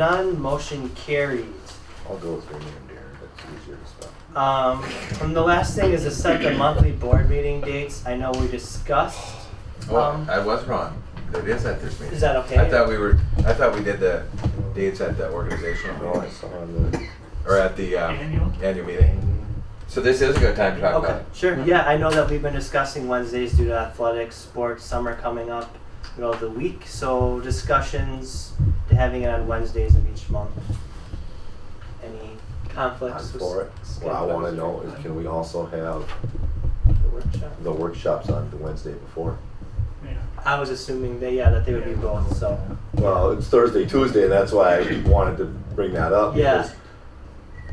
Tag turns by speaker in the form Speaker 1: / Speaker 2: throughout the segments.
Speaker 1: None, motion carries.
Speaker 2: I'll go with your name, Darren, that's easier to spell.
Speaker 1: Um, and the last thing is to set the monthly board meeting dates. I know we discussed.
Speaker 3: Well,
Speaker 1: Um,
Speaker 3: I was wrong. It is at this meeting.
Speaker 1: Is that okay?
Speaker 3: I thought we were, I thought we did the dates at the organizational
Speaker 2: No, I
Speaker 3: meeting,
Speaker 2: saw the.
Speaker 3: or at the, um,
Speaker 4: Annual?
Speaker 3: annual meeting. So this is a good time to talk about
Speaker 1: Okay,
Speaker 3: it.
Speaker 1: sure. Yeah, I know that we've been discussing Wednesdays due to athletics, sports, summer coming up, middle of the week. So discussions, to having it on Wednesdays of each month. Any
Speaker 2: I'm
Speaker 1: conflicts? with
Speaker 2: for it. What I wanna know is can we also have
Speaker 1: the workshop?
Speaker 2: the workshops on the Wednesday before?
Speaker 4: Yeah.
Speaker 1: I was assuming that, yeah, that they would be both, so.
Speaker 2: Well, it's Thursday, Tuesday, and that's why I wanted to bring that up.
Speaker 1: Yeah.
Speaker 2: because,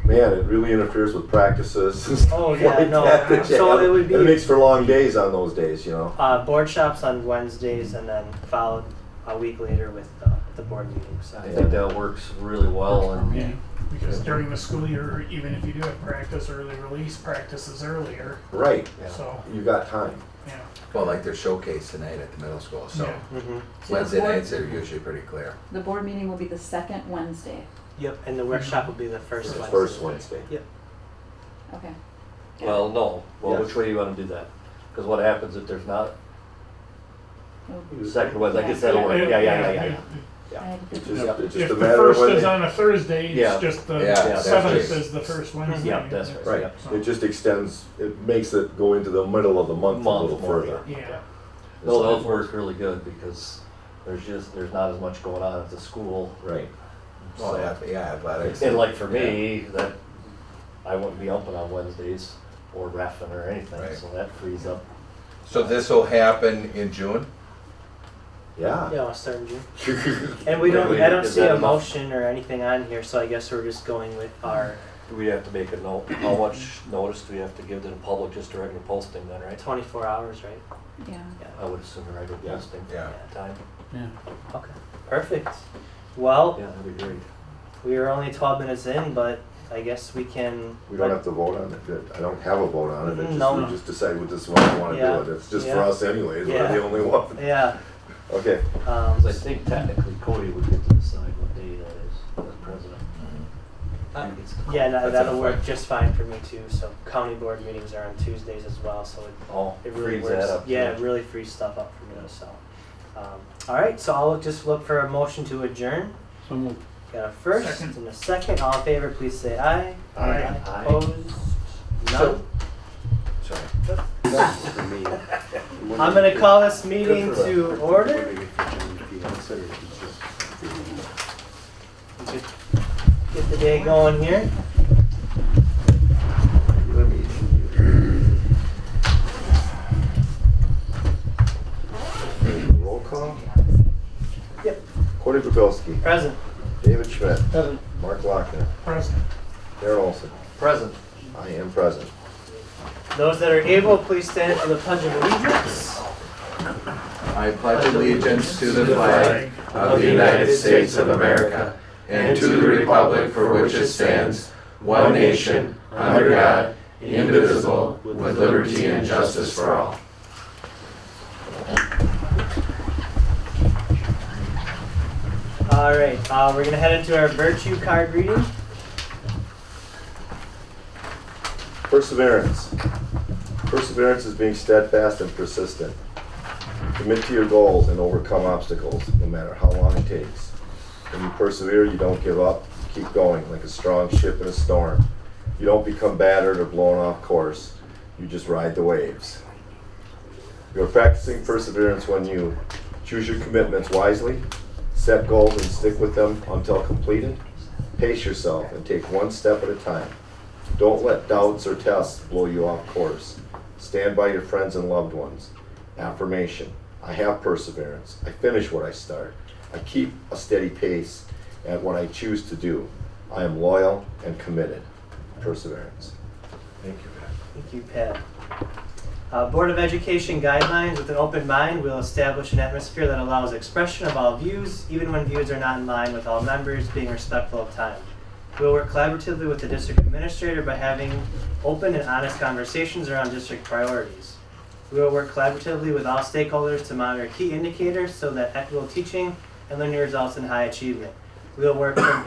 Speaker 2: Man, it really interferes with practices and stuff
Speaker 1: Oh, yeah,
Speaker 2: like
Speaker 1: no.
Speaker 2: that that you
Speaker 1: So
Speaker 2: have.
Speaker 1: it would be-
Speaker 2: It makes for long days on those days, you know?
Speaker 1: Uh, board shops on Wednesdays and then followed a week later with the, the board meeting, so.
Speaker 5: I think that works really well and
Speaker 4: Yeah, Because during the school year, even if you do have practice early release, practices earlier,
Speaker 2: Right,
Speaker 4: so,
Speaker 2: you got time.
Speaker 4: yeah.
Speaker 3: Well, like their showcase tonight at the middle school, so
Speaker 4: Yeah.
Speaker 1: Mhm.
Speaker 6: So the
Speaker 3: Wednesday
Speaker 6: board-
Speaker 3: nights are usually pretty clear.
Speaker 6: The board meeting will be the second Wednesday.
Speaker 1: Yep, and the workshop will be the
Speaker 2: The
Speaker 1: first Wednesday.
Speaker 2: First Wednesday.
Speaker 6: Okay.
Speaker 5: well, no. Well,
Speaker 2: Yes.
Speaker 5: which way you want to do that? Because what happens if there's not
Speaker 6: It'll-
Speaker 5: second was I guess
Speaker 6: Yeah.
Speaker 5: that'll work. Yeah, yeah, yeah, yeah. yeah.
Speaker 6: Oh, I-
Speaker 2: It's
Speaker 5: Yeah.
Speaker 2: just, it's
Speaker 4: If
Speaker 2: just
Speaker 4: the
Speaker 2: a matter of
Speaker 4: first
Speaker 2: when
Speaker 4: is
Speaker 2: they,
Speaker 4: on a Thursday,
Speaker 5: Yeah.
Speaker 4: it's just
Speaker 3: Yeah,
Speaker 4: the
Speaker 3: that's
Speaker 4: seventh
Speaker 3: right.
Speaker 4: is the first Wednesday.
Speaker 5: Yeah, that's right.
Speaker 2: right,
Speaker 4: So-
Speaker 2: it just extends, it makes it go into the middle of the month a
Speaker 5: Month
Speaker 2: little
Speaker 5: more,
Speaker 2: further.
Speaker 4: Yeah,
Speaker 5: No, those work really good because there's just there's not as much going on at the school.
Speaker 2: Right.
Speaker 5: Oh,
Speaker 3: Well, yeah, yeah, athletics.
Speaker 5: And like for me, that I wouldn't be open on Wednesdays or raffing or anything,
Speaker 3: Right.
Speaker 5: so that frees up.
Speaker 3: So this will happen in June?
Speaker 2: Yeah.
Speaker 1: Yeah, I'll start in June. And we don't,
Speaker 5: Wait,
Speaker 1: I don't
Speaker 5: is
Speaker 1: see
Speaker 5: that
Speaker 1: a
Speaker 5: enough?
Speaker 1: motion or anything on here, so I guess we're just going with our
Speaker 5: Do we have to make a note? How much notice do we have to give to the public? Just a regular posting, then, right?
Speaker 1: twenty-four hours, right?
Speaker 6: Yeah.
Speaker 5: I would assume a regular
Speaker 2: Yeah.
Speaker 5: posting
Speaker 3: Yeah.
Speaker 5: time.
Speaker 1: Okay, perfect. Well,
Speaker 5: Yeah, that'd be great.
Speaker 1: we are only twelve minutes in, but I guess we can.
Speaker 2: We don't have to vote on it, I don't have a vote on it, it just,
Speaker 1: No.
Speaker 2: we just decide what this one we
Speaker 1: Yeah.
Speaker 2: wanna do it, it's just for
Speaker 1: Yeah.
Speaker 2: us anyways, we're
Speaker 1: Yeah.
Speaker 2: the only one.
Speaker 1: Yeah,
Speaker 2: Okay,
Speaker 1: um,
Speaker 5: Because I think technically Cody would get to decide what day that is as president.
Speaker 3: Mm-hmm.
Speaker 1: Uh,
Speaker 5: He gets-
Speaker 1: yeah,
Speaker 3: That's
Speaker 1: that-
Speaker 3: a
Speaker 1: that'll work
Speaker 3: fact.
Speaker 1: just fine for me too, so county board meetings are on Tuesdays as well, so it
Speaker 5: Oh,
Speaker 1: It really
Speaker 5: frees that
Speaker 1: works.
Speaker 5: up.
Speaker 1: Yeah, it
Speaker 5: too.
Speaker 1: really frees stuff up for me. So, um, all right. So I'll look, just look for a motion to adjourn. Got a first
Speaker 4: Second.
Speaker 1: and a second. All in favor, please say aye.
Speaker 4: Aye.
Speaker 5: Aye.
Speaker 1: Opposed?
Speaker 3: So-
Speaker 1: None.
Speaker 3: Sorry.
Speaker 1: I'm gonna call this meeting to order. We could Get the day going here.
Speaker 2: roll call,
Speaker 1: Yep.
Speaker 2: Cordy Pavelski,
Speaker 1: Present.
Speaker 2: David Schmidt, Mark Lochner,
Speaker 4: President.
Speaker 2: Darren Olson,
Speaker 5: Present.
Speaker 2: I am present.
Speaker 1: Those that are able, please stand for the pledge of allegiance.
Speaker 3: I pledge allegiance to the flag of the United States of America and to the republic for which it stands, one nation, under God, indivisible, with liberty and justice for all.
Speaker 1: All right. Uh, we're gonna head into our virtue card reading.
Speaker 2: Perseverance. Perseverance is being steadfast and persistent. Commit to your goals and overcome obstacles, no matter how long it takes. When you persevere, you don't give up, you keep going like a strong ship in a storm. You don't become battered or blown off course, you just ride the waves. You're practicing perseverance when you choose your commitments wisely, set goals and stick with them until completed, pace yourself and take one step at a time. Don't let doubts or tests blow you off course. Stand by your friends and loved ones. Affirmation. I have perseverance. I finish what I start. I keep a steady pace at what I choose to do. I am loyal and committed. Perseverance.
Speaker 3: Thank you, Pat.
Speaker 1: Thank you, Pat. Uh, Board of Education guidelines with an open mind will establish an atmosphere that allows expression of all views, even when views are not in line with all members, being respectful of time. We'll work collaboratively with the district administrator by having open and honest conversations around district priorities. We will work collaboratively with all stakeholders to monitor key indicators so that equitable teaching and learning results in high achievement. We'll work from